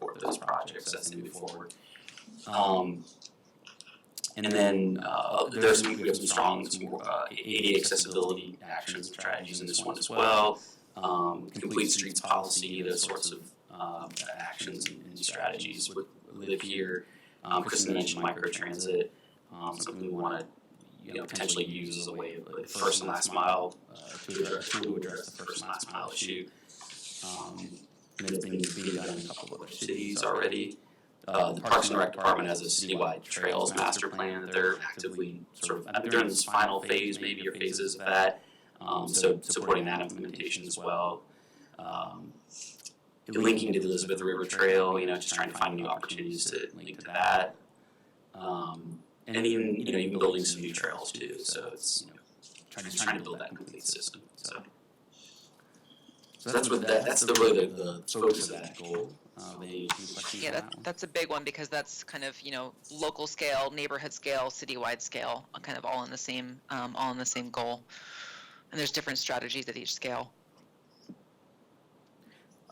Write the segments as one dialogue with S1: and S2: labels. S1: for those projects as they move forward. Um, and then, uh, there's some, we have some strong, some, uh, ADA accessibility actions, and strategies in this one as well. Um, complete streets policy, those sorts of, um, actions and and strategies would live here. Um, Kristen mentioned microtransit, um, something we wanna, you know, potentially use as a way of, like, first and last mile, uh, to address, to address the first and last mile issue. Um, and it's been being done in uh, a couple of other cities already. Uh, the Parks and Rec Department has a citywide trails master plan that they're actively sort of, they're in this final phase, maybe, or phases of that. Um, so supporting that implementation as well. Um, linking to the Elizabeth River Trail, you know, just trying to find new opportunities to link to that. Um, and even, you know, even building some new trails too, so it's, you know, trying, just trying to build that complete system, so. So that's what, that, that's the really the, the focus of that goal. Uh, they, any questions
S2: Yeah,
S1: on
S2: that,
S1: that one?
S2: that's a big one because that's kind of, you know, local scale, neighborhood scale, citywide scale, uh, kind of all in the same, um, all in the same goal. And there's different strategies at each scale.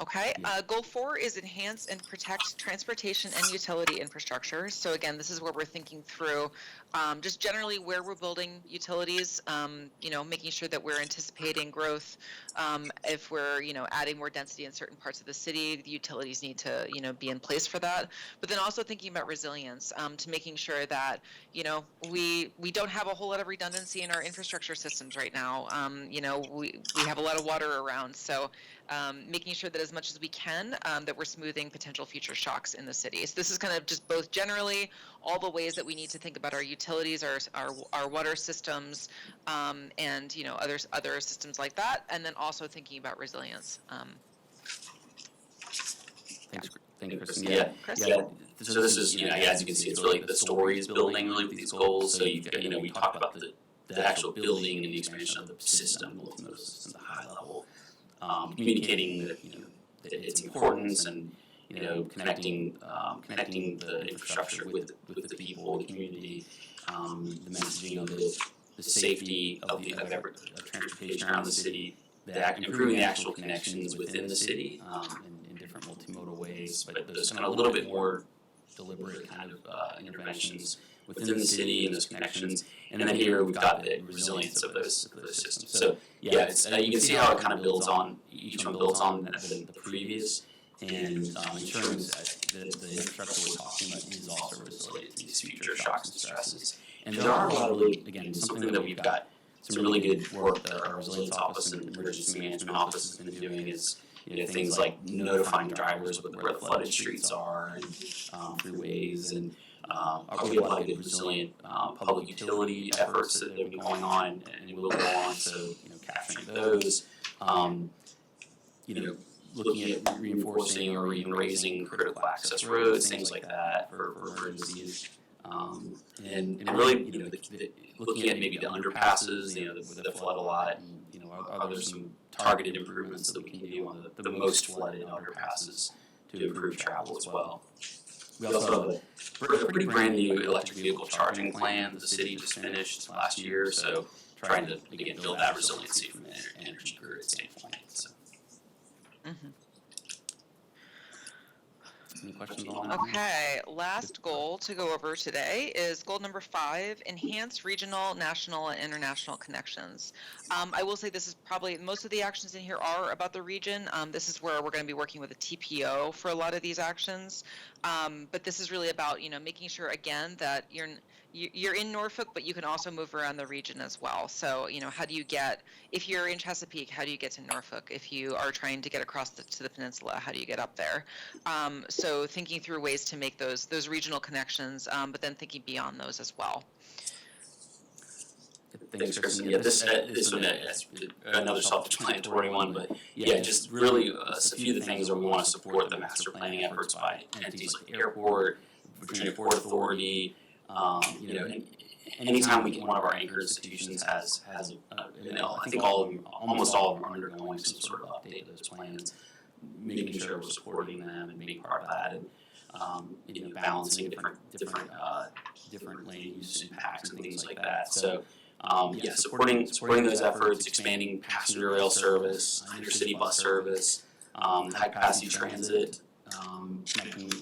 S2: Okay,
S1: Yeah.
S2: uh, goal four is enhance and protect transportation and utility infrastructure. So again, this is where we're thinking through, um, just generally where we're building utilities, um, you know, making sure that we're anticipating growth, um, if we're you know adding more density in certain parts of the city the utilities need to you know be in place for that but then also thinking about resilience um, to making sure that you know we we don't have a whole lot of redundancy in our infrastructure systems right now um, you know we we have a lot of water around so um, making sure that as much as we can um, that we're smoothing potential future shocks in the city so this is kind of just both generally all the ways that we need to think about our utilities our our, our water systems um, and you know other other systems like that, and then also thinking about resilience. Um,
S1: Thanks, thank you, Kristen.
S3: Yeah,
S2: Chris,
S1: Yeah,
S3: Yeah. So this is, you know, as you can see, it's really the story is building really with these goals. So you've got, you know, we talked about the, the actual building and the expansion of the system, both of those systems at a high level.
S1: um, communicating that, you know, that its importance and, you know, connecting, um, connecting the infrastructure with, with the people, the community, um, the messaging of the, the safety of the, of every, of transportation around the city, the act, improving the actual connections within the city, um, in, in different multimodal ways, but there's kind of a little bit more deliberate kind of, uh, interventions within the city and those connections. And then here we've got the resilience of those, of those systems. So yeah, it's, uh, you can see how it kind of builds on, each one builds on the, the previous. And um, ensuring that the, the infrastructure we're talking about is also resilient to these future shocks and stresses. And there are a lot of, really- again, something that we've got, some really good work that our resilience office and emergency management office has been doing is, you know, things like notifying drivers with where the flooded streets are and um, freeways and um, we have a lot of good resilient um, public utility efforts that have been going on and will go on. So you know, capturing those, um, you know, looking at reinforcing or even raising critical access roads, things like that for, for emergencies. Um, and, and really, you know, the, the, looking at maybe the underpasses, you know, that, that flood a lot. And, you know, are, are there some targeted improvements that we can do on the, the most flooded underpasses to improve travel as well? We also have a We're a pretty brand new electric vehicle charging plan. The city just finished last year, so trying to again build that resiliency from an ener- energy grid standpoint. So,
S2: mhm.
S1: any questions on that?
S2: Okay, last goal to go over today is goal number five: enhance regional, national, and international connections. Um, I will say this is probably most of the actions in here are about the region. Um, this is where we're going to be working with a TPO for a lot of these actions, um, but this is really about you know making sure again that you're n- you- you're in Norfolk, but you can also move around the region as well. So, you know, how do you get, if you're in Chesapeake, how do you get to Norfolk? If you are trying to get across the, to the peninsula, how do you get up there? Um, so, thinking through ways to make those those regional connections, um, but then thinking beyond those as well.
S1: Thanks, Kristen. Yeah, this uh, this one uh, that's another self-explanatory one, but
S3: Yeah, just really uh, a few of the things where we want to support the master planning efforts by
S1: entities like the airport, Virginia Port Authority. Um, you know, and anytime we get one of our anchor institutions has has uh, you know, I think all of them, almost all of them are undergoing some sort of update of those plans, making sure we're supporting them and being part of that, and um, you know, balancing different different uh, different land use impacts and things like that. So. Um, yeah, supporting supporting those efforts, expanding passenger rail service, intercity bus service, um, high capacity transit, um, connecting